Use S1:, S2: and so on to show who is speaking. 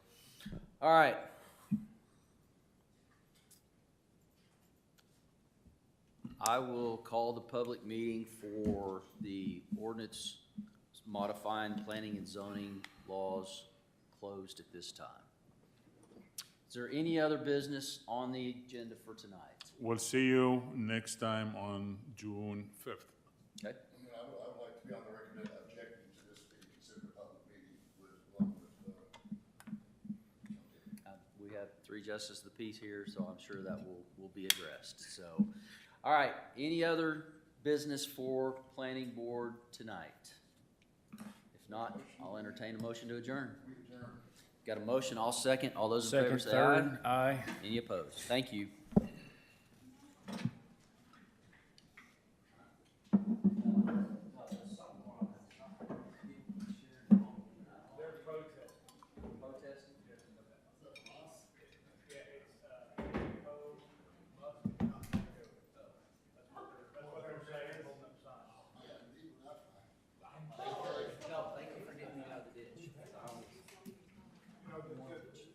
S1: All right. I will call the public meeting for the ordinance modifying planning and zoning laws closed at this time. Is there any other business on the agenda for tonight?
S2: We'll see you next time on June 5th.
S3: I
S1: Okay,
S3: mean, I would, I would like to be on the record that objecting to this being considered a public meeting with, along with, uh,
S1: uh, we have three justices of the peace here, so I'm sure that will, will be addressed, so. All right, any other business for planning board tonight? If not, I'll entertain a motion to adjourn. Got a motion, all second, all those in favor
S4: Second,
S1: say aye.
S4: third, aye.
S1: Any opposed? Thank you.